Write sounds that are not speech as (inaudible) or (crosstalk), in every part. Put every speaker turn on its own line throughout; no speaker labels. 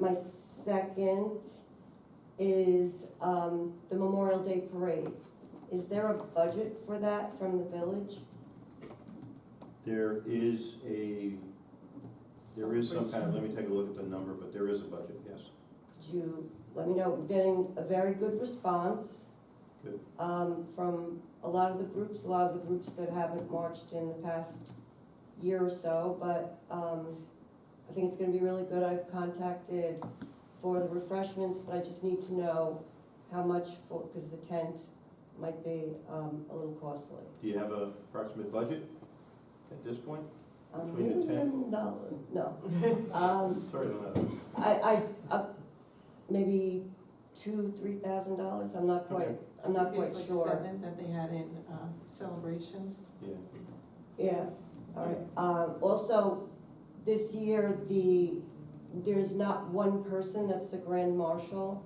My second is um, the Memorial Day Parade. Is there a budget for that from the village?
There is a, there is some kind of, let me take a look at the number, but there is a budget, yes.
Could you let me know, We're getting a very good response
Good.
um, from a lot of the groups, a lot of the groups that haven't marched in the past year or so, but um, I think it's gonna be really good. I've contacted for the refreshments, but I just need to know how much for, because the tent might be um, a little costly.
Do you have a approximate budget at this point?
A
Between the tent-
million dollars, Um, no. Um,
Sorry, I don't have it.
I, I, uh, maybe two, three thousand dollars, I'm not quite,
Okay.
I'm not quite
It's like
sure.
seven that they had in uh, celebrations.
Yeah,
Yeah, all right. Um, also, this year, the, there's not one person, that's the grand marshal.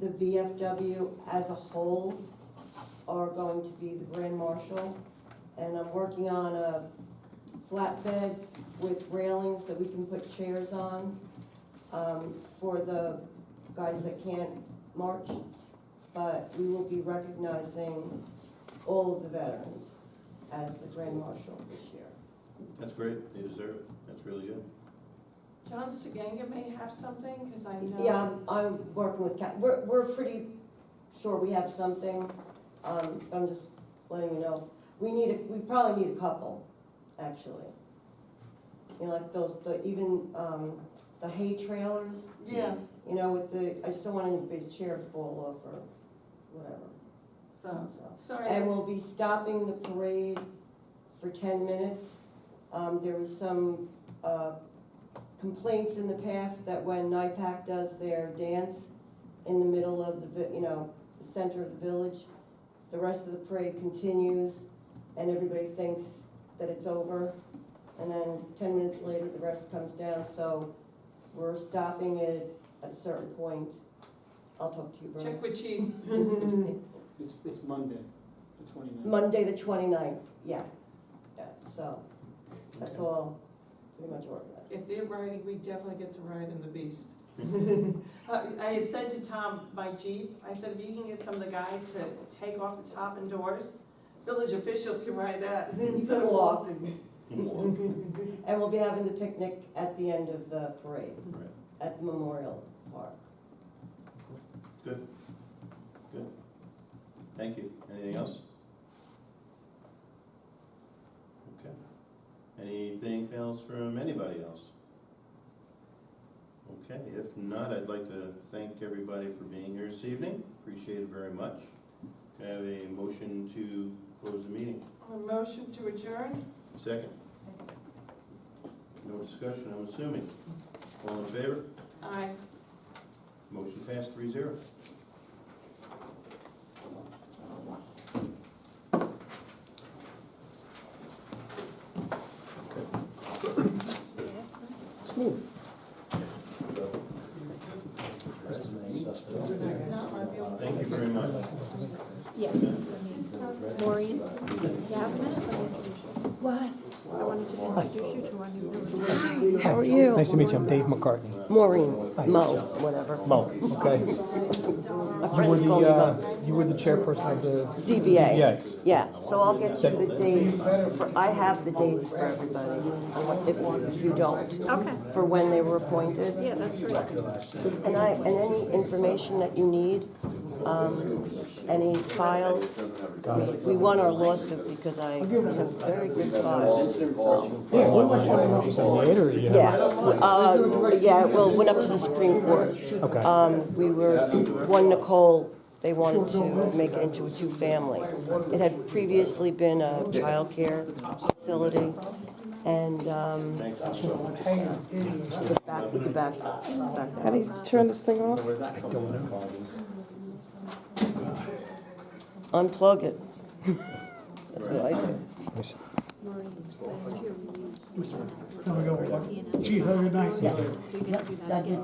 The VFW as a whole are going to be the grand marshal. And I'm working on a flatbed with railings that we can put chairs on, um, for the guys that can't march. But we will be recognizing all of the veterans as the grand marshal this year.
that's great, they deserve it, that's really good.
John Stiganga may have something, because I know.
Yeah, I'm, I'm working with Cat, we're, we're pretty sure we have something, um, I'm just letting you know. We need, a we probably need a couple, actually. You know, like those, the, even, um, the hay trailers,
Yeah,
you know, with the, I just don't want anybody's chair to fall off or whatever,
so,
so. And
sorry,
we'll be stopping the parade for ten minutes. Um, there was some, uh, complaints in the past that when NIPAC does their dance in the middle of the, vi- you know, the center of the village, the rest of the parade continues and everybody thinks that it's over. And then ten minutes later, the rest comes down, so we're stopping it at a certain point. I'll talk to you, Bert.
check
(laughs)
with you.
It's, it's Monday, the twenty-ninth.
Monday, the 29th, yeah, yeah, so, that's all pretty much organized.
If they're riding, we definitely get to ride in
(laughs)
the beast. Uh, I had said to Tom, my Jeep, I said, if you can get some of the guys to take off the top and doors, village officials can ride that.
You
instead
can
of
walk,
More,
and we'll be having the picnic at the end of the parade,
right,
at Memorial Park.
thank you. Anything else? Okay. Anything else from anybody else? Okay, if not, I'd like to thank everybody for being here this evening, appreciate it very much. Can I Have a motion to close the meeting.
A motion to adjourn?
Second. No discussion, I'm assuming. All in favor?
Aye.
Motion passed three zero.
It's not my building.
Thank you very much.
Yes. Maureen, you have a minute? What? I wanted to introduce you to our new member.
How are you?
Nice to meet you, I'm Dave McCartney.
Maureen, Mo, whatever,
Mo, Oh, okay.
my
You were the, uh, you were the chairperson of the
ZBA.
ZBAs.
Yeah, so I'll get you the dates, for- I have the dates for everybody, if you don't,
Okay,
for when they were appointed.
yeah, that's great.
And I, and any information that you need, um, any files, we- we won our lawsuit because I have very good files.
Yeah, what was it, was it later, you know?
Yeah, uh, yeah, well, went up to the Supreme Court.
Okay.
Um, we were, one Nicole, they wanted to make it into a two-family. It had previously been a childcare facility, and, um, back, we could back, back that up.
turn this thing off?
Unplug it. That's what I do.
Let me see.
Maureen, last year we used.
Gee, have a good night.
So you're gonna do that again?